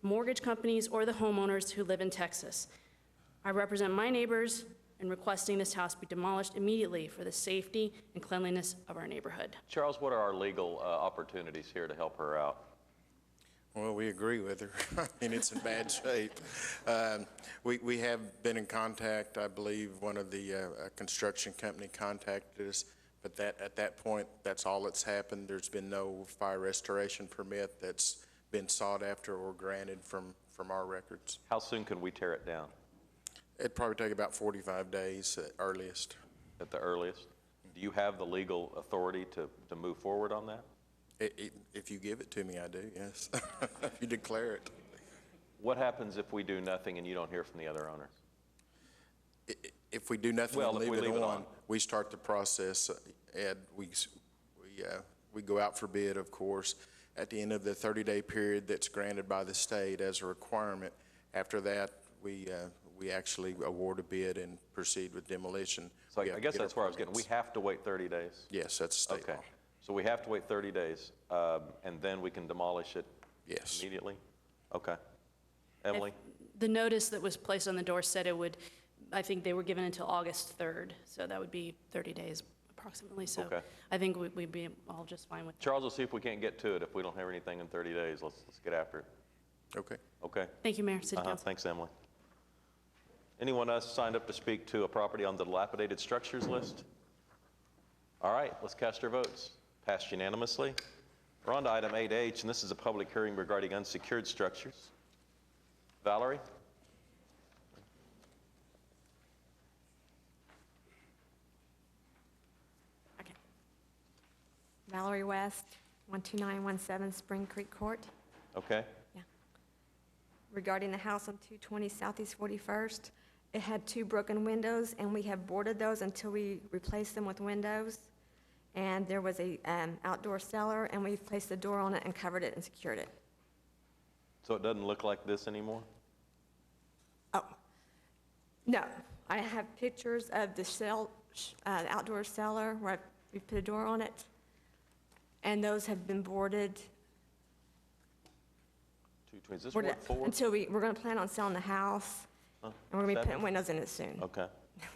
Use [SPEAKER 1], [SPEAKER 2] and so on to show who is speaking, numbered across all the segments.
[SPEAKER 1] mortgage companies, or the homeowners who live in Texas. I represent my neighbors in requesting this house be demolished immediately for the safety and cleanliness of our neighborhood.
[SPEAKER 2] Charles, what are our legal uh, opportunities here to help her out?
[SPEAKER 3] Well, we agree with her. I mean, it's in bad shape. Um, We, we have been in contact, I believe, one of the uh, uh, construction company contacted us, but that, at that point, that's all that's happened. There's been no fire restoration permit that's been sought after or granted from, from our records.
[SPEAKER 2] How soon can we tear it down
[SPEAKER 3] It'd probably take about 45 days at earliest.
[SPEAKER 2] at the earliest? Do you have the legal authority to, to move forward on that?
[SPEAKER 3] I- i- If you give it to me, I do, yes. If you declare it.
[SPEAKER 2] What happens if we do nothing and you don't hear from the other owners?
[SPEAKER 3] I- i- If we do nothing
[SPEAKER 2] Well,
[SPEAKER 3] and
[SPEAKER 2] if we
[SPEAKER 3] leave it
[SPEAKER 2] leave it
[SPEAKER 3] on,
[SPEAKER 2] on.
[SPEAKER 3] we start the process, and we, s- we, uh, we go out for bid, of course, at the end of the 30-day period that's granted by the state as a requirement. After that, we, uh, we actually award a bid and proceed with demolition.
[SPEAKER 2] So
[SPEAKER 3] We
[SPEAKER 2] I- I
[SPEAKER 3] have to
[SPEAKER 2] guess
[SPEAKER 3] get our
[SPEAKER 2] that's where I was getting, we
[SPEAKER 3] permits.
[SPEAKER 2] have to wait 30 days?
[SPEAKER 3] Yes, that's state
[SPEAKER 2] Okay,
[SPEAKER 3] law.
[SPEAKER 2] so we have to wait 30 days, um, and then we can demolish it
[SPEAKER 3] Yes.
[SPEAKER 2] immediately? Okay. Emily?
[SPEAKER 1] The notice that was placed on the door said it would, I think they were given until August 3rd, so that would be 30 days approximately. So
[SPEAKER 2] Okay.
[SPEAKER 1] I think we- we'd be all just fine with that.
[SPEAKER 2] Charles, let's see if we can't get to it. If we don't have anything in 30 days, let's, let's get after it.
[SPEAKER 3] Okay.
[SPEAKER 2] Okay?
[SPEAKER 1] Thank you, Mayor, City
[SPEAKER 2] Uh-huh,
[SPEAKER 1] Council.
[SPEAKER 2] thanks, Emily. Anyone else signed up to speak to a property on the dilapidated structures list? All right, let's cast our votes. Passed unanimously. We're on to item 8H, and this is a public hearing regarding unsecured structures. Valerie?
[SPEAKER 1] Okay.
[SPEAKER 4] Valerie West, 12917 Spring Creek Court,
[SPEAKER 2] Okay.
[SPEAKER 4] regarding the house on 220 Southeast 41st. It had two broken windows, and we have boarded those until we replaced them with windows. And there was a um, outdoor cellar, and we placed the door on it and covered it and secured it.
[SPEAKER 2] So it doesn't look like this anymore?
[SPEAKER 4] Oh, no, I have pictures of the cell, sh- uh, outdoor cellar where I- we put a door on it, and those have been boarded
[SPEAKER 2] Two twins. Is this
[SPEAKER 4] We're
[SPEAKER 2] Ward
[SPEAKER 4] not-
[SPEAKER 2] 4?
[SPEAKER 4] Until we, we're gonna plan on selling the house,
[SPEAKER 2] Huh,
[SPEAKER 4] and we're gonna be
[SPEAKER 2] that
[SPEAKER 4] putting
[SPEAKER 2] is-
[SPEAKER 4] windows in it soon.
[SPEAKER 2] Okay.
[SPEAKER 4] Yeah,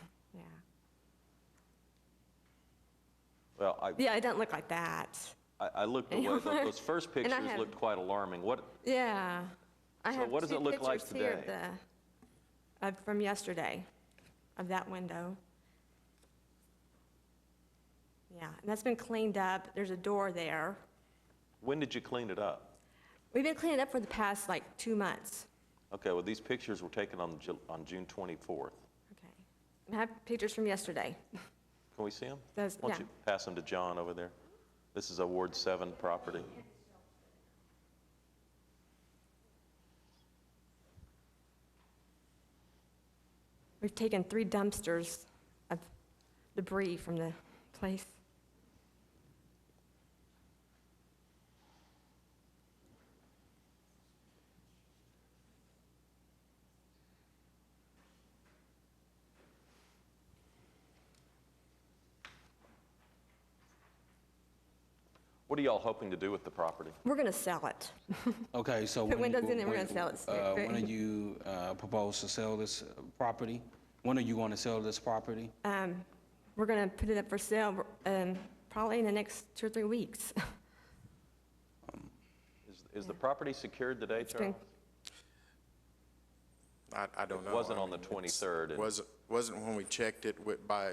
[SPEAKER 2] Well, I,
[SPEAKER 4] yeah, it doesn't look like that.
[SPEAKER 2] I- I looked away. Those- Those first
[SPEAKER 4] And I
[SPEAKER 2] pictures
[SPEAKER 4] have-
[SPEAKER 2] looked quite alarming. What,
[SPEAKER 4] Yeah. I
[SPEAKER 2] So
[SPEAKER 4] have
[SPEAKER 2] what does
[SPEAKER 4] two
[SPEAKER 2] it look like
[SPEAKER 4] pictures here of
[SPEAKER 2] today?
[SPEAKER 4] the- Of, from yesterday, of that window. Yeah, and that's been cleaned up, there's a door there.
[SPEAKER 2] when did you clean it up?
[SPEAKER 4] We've been cleaning up for the past like two months.
[SPEAKER 2] Okay, well, these pictures were taken on, Ju- on June 24th.
[SPEAKER 4] Okay. And I have pictures from yesterday.
[SPEAKER 2] Can we see them?
[SPEAKER 4] Those-
[SPEAKER 2] Why don't
[SPEAKER 4] yeah.
[SPEAKER 2] you pass them to John over there? This is a Ward 7 property.
[SPEAKER 4] We've taken three dumpsters of debris from the place.
[SPEAKER 2] What are y'all hoping to do with the property?
[SPEAKER 4] We're gonna sell it.
[SPEAKER 5] Okay, so.
[SPEAKER 4] Put
[SPEAKER 5] when you-
[SPEAKER 4] windows in and we're
[SPEAKER 5] when-
[SPEAKER 4] gonna sell it soon.
[SPEAKER 5] uh, When are you uh, propose to sell this uh, property? When are you going to sell this property?
[SPEAKER 4] Um, We're going to put it up for sale um, probably in the next two or three weeks.
[SPEAKER 2] Is, is the property secured today,
[SPEAKER 4] been-
[SPEAKER 2] Charles?
[SPEAKER 3] I, I don't
[SPEAKER 2] It
[SPEAKER 3] know.
[SPEAKER 2] wasn't
[SPEAKER 3] I
[SPEAKER 2] on the
[SPEAKER 3] mean, it's-
[SPEAKER 2] 23rd, and-
[SPEAKER 3] Wasn't, wasn't when we checked it wi- by,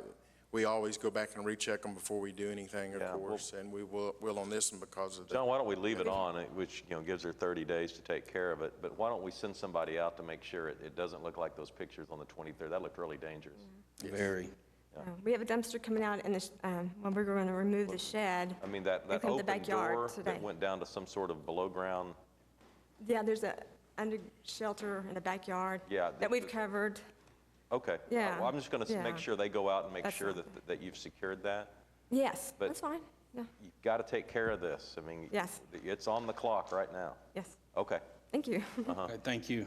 [SPEAKER 3] we always go back and recheck them before we do anything, of
[SPEAKER 2] Yeah, well-
[SPEAKER 3] course, and we will, will on this one because of the.
[SPEAKER 2] John, why don't we leave it on, uh, which, you know, gives her 30 days to take care of it, but why don't we send somebody out to make sure it, it doesn't look like those pictures on the 23rd? That looked really dangerous.
[SPEAKER 4] Mm-hmm.
[SPEAKER 5] Very.
[SPEAKER 4] Uh, We have a dumpster coming out in the, sh- um, when we're going to remove the shed.
[SPEAKER 2] I mean, that,
[SPEAKER 4] They
[SPEAKER 2] that
[SPEAKER 4] cleaned the
[SPEAKER 2] open
[SPEAKER 4] backyard
[SPEAKER 2] door
[SPEAKER 4] today.
[SPEAKER 2] that went down to some sort of below-ground,
[SPEAKER 4] Yeah, there's a under shelter in the backyard.
[SPEAKER 2] Yeah, the-
[SPEAKER 4] That we've
[SPEAKER 2] the-
[SPEAKER 4] covered.
[SPEAKER 2] okay. Uh,
[SPEAKER 4] Yeah,
[SPEAKER 2] Well, I'm just going to
[SPEAKER 4] yeah.
[SPEAKER 2] make sure they go out and make
[SPEAKER 4] That's
[SPEAKER 2] sure
[SPEAKER 4] not
[SPEAKER 2] that, that you've secured that.
[SPEAKER 4] Yes,
[SPEAKER 2] But-
[SPEAKER 4] that's fine. Yeah,
[SPEAKER 2] You've got to take care of this. I mean,
[SPEAKER 4] Yes.
[SPEAKER 2] it's on the clock right now.
[SPEAKER 4] yes,
[SPEAKER 2] Okay.
[SPEAKER 4] thank you.
[SPEAKER 5] Okay, Thank you.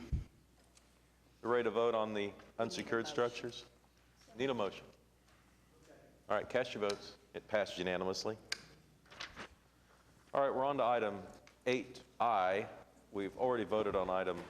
[SPEAKER 2] You Ready to vote on the unsecured structures? Need a motion? All right, cast your votes. It passed unanimously. All right, we're on to item 8I, We've already voted on item